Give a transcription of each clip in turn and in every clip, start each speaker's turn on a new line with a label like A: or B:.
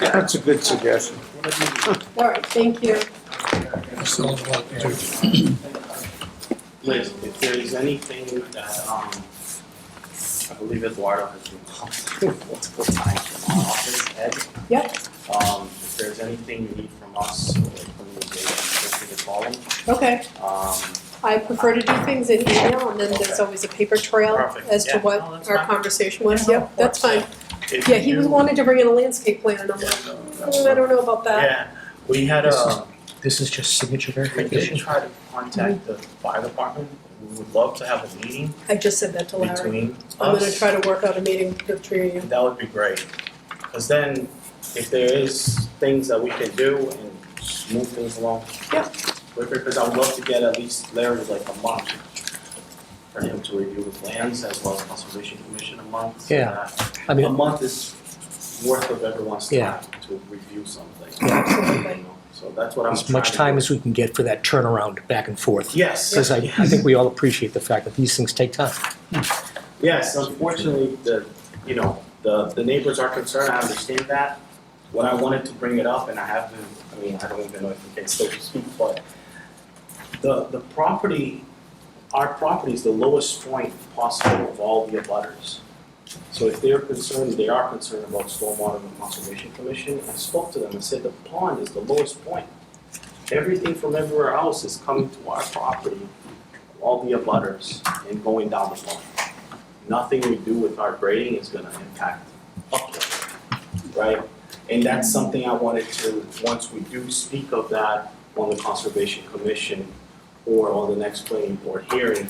A: That's a good suggestion.
B: All right, thank you.
C: Still a lot to do.
D: Liz, if there's anything that, um, I believe Eduardo has been called multiple times from our office, Ed.
B: Yep.
D: Um, if there's anything you need from us, or from the data, feel free to call him.
B: Okay,
D: Um,
B: I prefer to do things in email and then there's always a paper trail
D: Perfect,
B: as to
D: yeah.
B: what
D: No, that's
B: our
D: fine.
B: conversation was.
D: Yeah,
B: Yep,
D: of
B: that's
D: course,
B: fine.
D: if
B: Yeah, he was
D: you-
B: wanted to bring in a landscape plan and I'm
D: Yeah,
B: like,
D: no, that's
B: mm, I don't know about that.
D: Yeah, we had a,
E: This is just signature
D: we did
E: verification.
D: try to contact the fire department, we would love to have a meeting
B: I just said that to Larry.
D: between us.
B: I'm gonna try to work out a meeting with Trini.
D: That would be great, because then if there is things that we can do and move things along.
B: Yeah.
D: Because I would love to get at least Larry like a month for him to review his plans as well as conservation commission a month.
E: Yeah. I
D: A
E: mean,
D: month is worth of everyone's
E: Yeah.
D: time to review something.
B: Absolutely.
D: You know, So that's what I'm trying
E: as
D: to
E: much time
D: do.
E: as we can get for that turnaround back and forth.
D: Yes.
E: Because I, I think we all appreciate the fact that these things take time.
D: Yes, unfortunately, the, you know, the, the neighbors are concerned, I understand that. What I wanted to bring it up, and I have been, I mean, I don't even know if we can still speak, but the, the property, our property is the lowest point possible of all the abutters. So if they're concerned, they are concerned about stormwater and conservation commission, I spoke to them and said the pond is the lowest point. Everything from everywhere else is coming to our property, all the abutters, and going down the pond nothing we do with our grading is gonna impact upland, right? And that's something I wanted to, once we do speak of that on the Conservation Commission or on the next planning board hearing,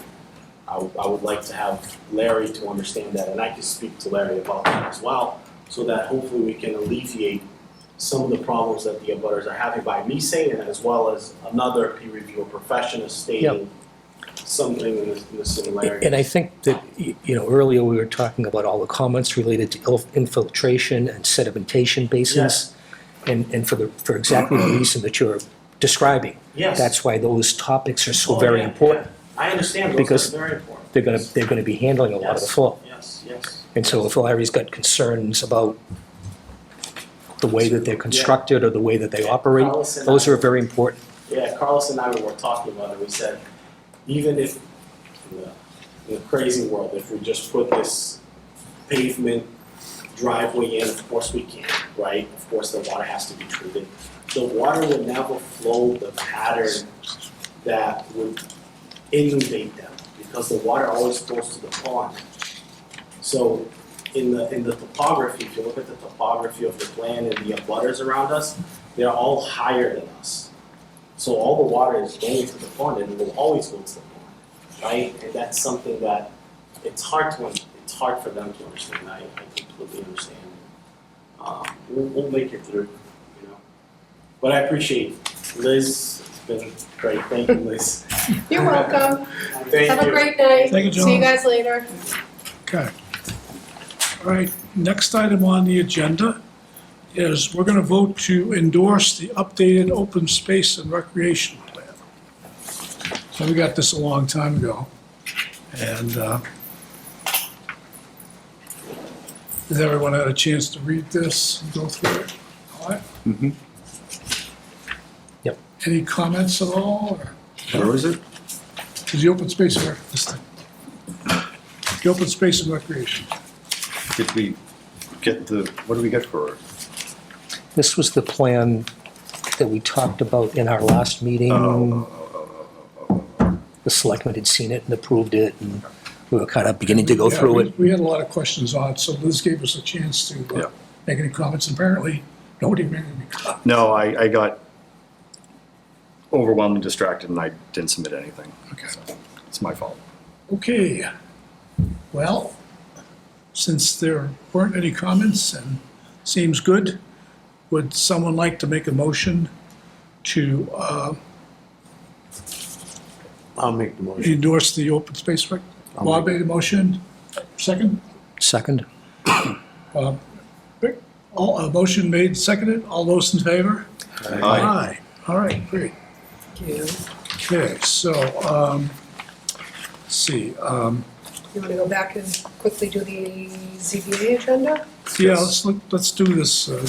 D: I, would- I would like to have Larry to understand that, and I can speak to Larry about that as well, so that hopefully we can alleviate some of the problems that the abutters are having by me saying it, as well as another peer reviewer professional stating something in the, in the similarity.
E: And I think that, y- you know, earlier we were talking about all the comments related to il- infiltration and sedimentation basins. And, and for the, for exactly the reason that you're describing.
D: Yes.
E: That's why those topics are so
D: Oh,
E: very
D: yeah, yeah.
E: important.
D: I understand,
E: Because
D: those are very important.
E: They're gonna, they're gonna be handling a lot of the flow.
D: Yes, yes.
E: And so if Larry's got concerns about the way that they're constructed or the way that they operate,
D: Carlos and
E: those
D: I-
E: are very important.
D: Yeah, Carlos and I were talking about it, we said, even if, in the, in the crazy world, if we just put this pavement driveway in, of course we can, right? Of course, the water has to be treated. The water would never flow the pattern that would inundate them, because the water always goes to the pond. So in the, in the topography, if you look at the topography of the plan and the abutters around us, they're all higher than us. So all the water is going to the pond and it will always go to the pond, right? And that's something that it's hard to, it's hard for them to understand. I, I completely understand. Um, we'll, we'll make it through, you know. But I appreciate Liz. It's been great. Thank you, Liz.
B: You're welcome.
D: Thank you.
B: Have a great night.
C: Thank you,
B: See you
C: John.
B: guys later.
C: Okay. All right, next item on the agenda is we're gonna vote to endorse the updated open space and recreation plan. So we got this a long time ago, and, uh, has everyone had a chance to read this and go through it? All right?
E: Yep.
C: Any comments at all, or?
F: Where is it?
C: Is the open space and rec, this thing? The open space and recreation.
F: Did we get the, what do we get for it?
E: This was the plan that we talked about in our last meeting. The selectmen had seen it and approved it, and we were kind of beginning to go
C: Yeah,
E: through
C: we-
E: it.
C: We had a lot of questions on it, so Liz gave us a chance to uh,
F: Yeah.
C: make any comments. Apparently, nobody made any comments.
F: No, I, I got overwhelmingly distracted and I didn't submit anything.
C: Okay.
F: It's my fault.
C: Okay. Well, since there weren't any comments and seems good, would someone like to make a motion to uh,
G: I'll make the motion.
C: endorse the open space rec? Bob made a motion. Second?
E: Second?
C: All, a motion made, seconded, all those in favor?
F: Aye.
C: All right, great.
B: Thank you.
C: Okay, so, um, let's see, um,
B: You wanna go back and quickly do the ZBA agenda?
C: yeah, let's, look- let's do this, uh,